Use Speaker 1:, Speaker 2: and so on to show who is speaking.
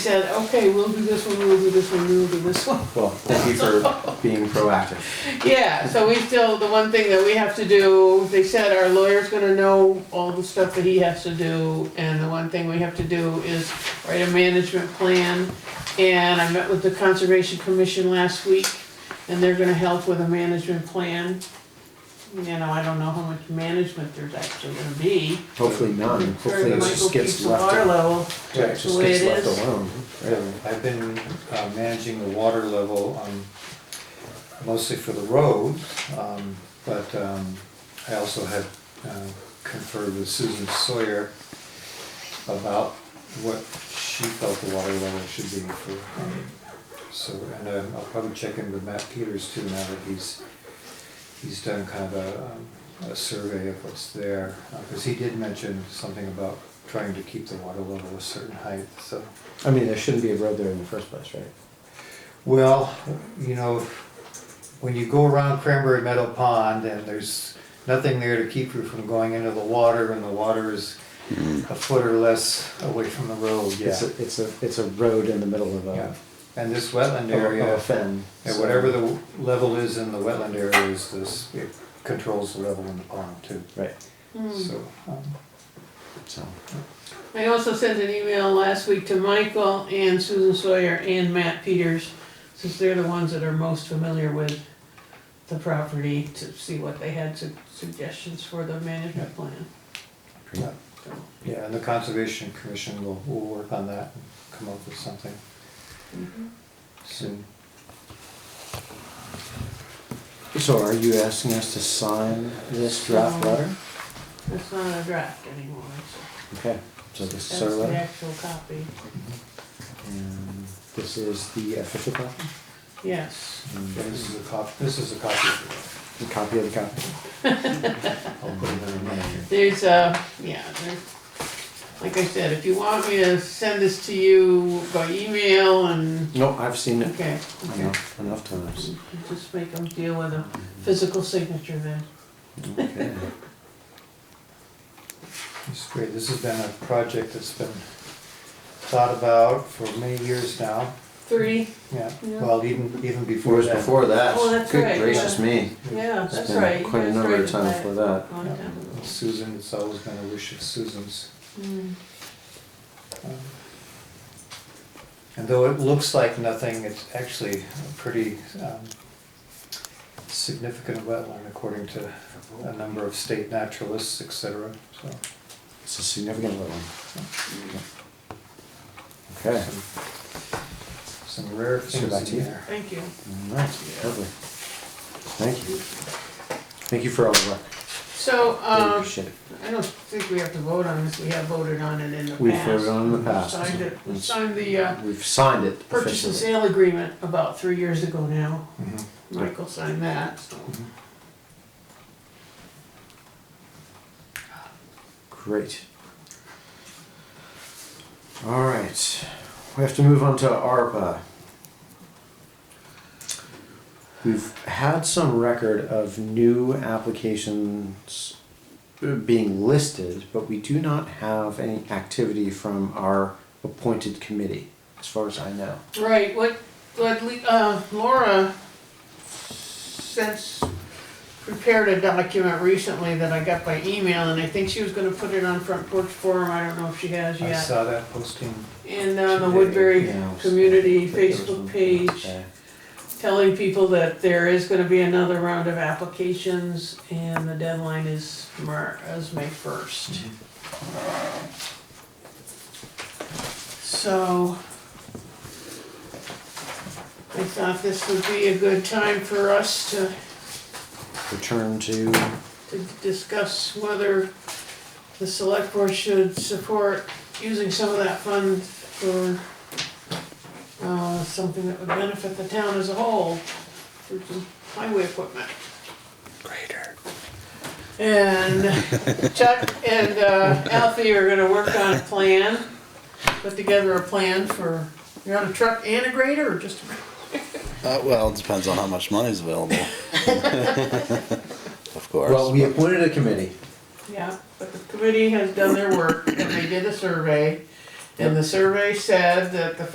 Speaker 1: said, okay, we'll do this one, we'll do this one, we'll do this one.
Speaker 2: Well, thank you for being proactive.
Speaker 1: Yeah, so we still, the one thing that we have to do, they said our lawyer's gonna know all the stuff that he has to do, and the one thing we have to do is write a management plan. And I met with the Conservation Commission last week, and they're gonna help with a management plan. You know, I don't know how much management there's actually gonna be.
Speaker 2: Hopefully none. Hopefully
Speaker 1: Sure,
Speaker 2: it
Speaker 1: Michael
Speaker 2: just
Speaker 1: keeps
Speaker 2: gets
Speaker 1: the water
Speaker 2: left,
Speaker 1: level.
Speaker 2: yeah, it just
Speaker 1: the way
Speaker 2: gets
Speaker 1: it
Speaker 2: left
Speaker 1: is.
Speaker 2: alone. Really.
Speaker 3: I've been uh, managing the water level um, mostly for the road, um, but um, I also had uh, conferred with Susan Sawyer about what she felt the water level should be for. um, So, and uh, I'll probably check in with Matt Peters too now that he's, he's done kind of a, um, a survey of what's there. Because he did mention something about trying to keep the water level a certain height, so.
Speaker 2: I mean, there shouldn't be a road there in the first place, right?
Speaker 3: Well, you know, when you go around Cranberry Meadow Pond and there's nothing there to keep you from going into the water and the water is a foot or less away from the road, yeah.
Speaker 2: It's a, it's a, it's a road in the middle of
Speaker 3: Yeah.
Speaker 2: a,
Speaker 3: And this wetland
Speaker 2: of a- of
Speaker 3: area,
Speaker 2: a fen.
Speaker 3: and
Speaker 2: so-
Speaker 3: whatever the level is in the wetland area is this, it controls the level in the pond too.
Speaker 2: Right,
Speaker 1: Hmm.
Speaker 3: So, um,
Speaker 2: so,
Speaker 1: I also sent an email last week to Michael and Susan Sawyer and Matt Peters, since they're the ones that are most familiar with the property, to see what they had su- suggestions for the management plan.
Speaker 3: yeah,
Speaker 1: So,
Speaker 3: yeah, and the Conservation Commission will, will work on that and come up with something soon.
Speaker 2: so are you asking us to sign this draft
Speaker 1: No.
Speaker 2: letter?
Speaker 1: It's not a draft anymore,
Speaker 2: Okay, so this
Speaker 1: it's,
Speaker 2: is our
Speaker 1: that's the
Speaker 2: letter,
Speaker 1: actual copy,
Speaker 2: and this is the official copy,
Speaker 1: yes.
Speaker 2: Mm.
Speaker 3: Yeah, This is a copy, this is a copy. of
Speaker 2: the copy of the copy.
Speaker 3: it. I'll put it in there.
Speaker 1: There's uh yeah, there, like I said, if you want me to send this to you by email and,
Speaker 2: No, I've seen it
Speaker 1: okay, okay.
Speaker 2: enough, enough times.
Speaker 1: Just make them deal with a physical signature then.
Speaker 2: Okay.
Speaker 3: It's great, this has been a project that's been thought about for many years now,
Speaker 1: Three,
Speaker 3: yeah,
Speaker 1: Yeah.
Speaker 3: well, even, even
Speaker 2: Before,
Speaker 3: before
Speaker 2: was
Speaker 3: that.
Speaker 2: before that.
Speaker 1: Oh, that's
Speaker 2: Good
Speaker 1: right,
Speaker 2: gracious
Speaker 1: yeah.
Speaker 2: me.
Speaker 1: yeah, that's
Speaker 2: Been
Speaker 1: right.
Speaker 2: Quite a
Speaker 1: That's
Speaker 2: number
Speaker 1: right,
Speaker 2: of times
Speaker 1: but-
Speaker 2: for that.
Speaker 1: long time ago.
Speaker 3: Susan, it's always been a wish of Susan's.
Speaker 1: Mm.
Speaker 3: Um, And though it looks like nothing, it's actually a pretty um, significant wetland according to a number of state naturalists, et cetera, so.
Speaker 2: It's a significant little one. Okay,
Speaker 3: some- Some rare
Speaker 2: Sure, back
Speaker 3: things
Speaker 2: to
Speaker 3: in
Speaker 2: you.
Speaker 3: there.
Speaker 1: Thank you.
Speaker 2: all right, lovely. Thank you. Thank you for all the work.
Speaker 1: So,
Speaker 2: Really
Speaker 1: um,
Speaker 2: appreciate it.
Speaker 1: I don't think we have to vote on this, we have voted on it in the past.
Speaker 2: We've voted on it in the
Speaker 1: We
Speaker 2: past.
Speaker 1: Signed it, we
Speaker 2: It's-
Speaker 1: signed the, uh,
Speaker 2: We've signed it
Speaker 1: purchase and
Speaker 2: officially.
Speaker 1: sale agreement about three years ago now.
Speaker 3: Mhm.
Speaker 1: Michael signed that, so.
Speaker 2: Great. All right, we have to move on to ARPA. We've had some record of new applications uh, being listed, but we do not have any activity from our appointed committee, as far as I know.
Speaker 1: Right, what, what, Le- uh, Laura since prepared a document recently that I got by email, and I think she was gonna put it on Front Porch Forum, I don't know if she has
Speaker 3: I
Speaker 1: yet.
Speaker 3: saw that posting.
Speaker 1: And on the Woodbury
Speaker 2: Yeah, I was-
Speaker 1: Community
Speaker 2: but there was
Speaker 1: Facebook
Speaker 2: one-
Speaker 1: page,
Speaker 2: okay.
Speaker 1: telling people that there is gonna be another round of applications, and the deadline is Mar, is May first. So. I thought this would be a good time for us to
Speaker 2: Return uh, to,
Speaker 1: to discuss whether the select board should support using some of that fund for uh, something that would benefit the town as a whole, for some highway equipment. Greater. And Chuck and uh, Alfie are gonna work on a plan, put together a plan for, you want a truck and a grader or just a grader?
Speaker 4: Uh, well, it depends on how much money's available. of course.
Speaker 2: well, we appointed a committee.
Speaker 1: Yeah, but the committee has done their work, and they did a survey, and the survey said that the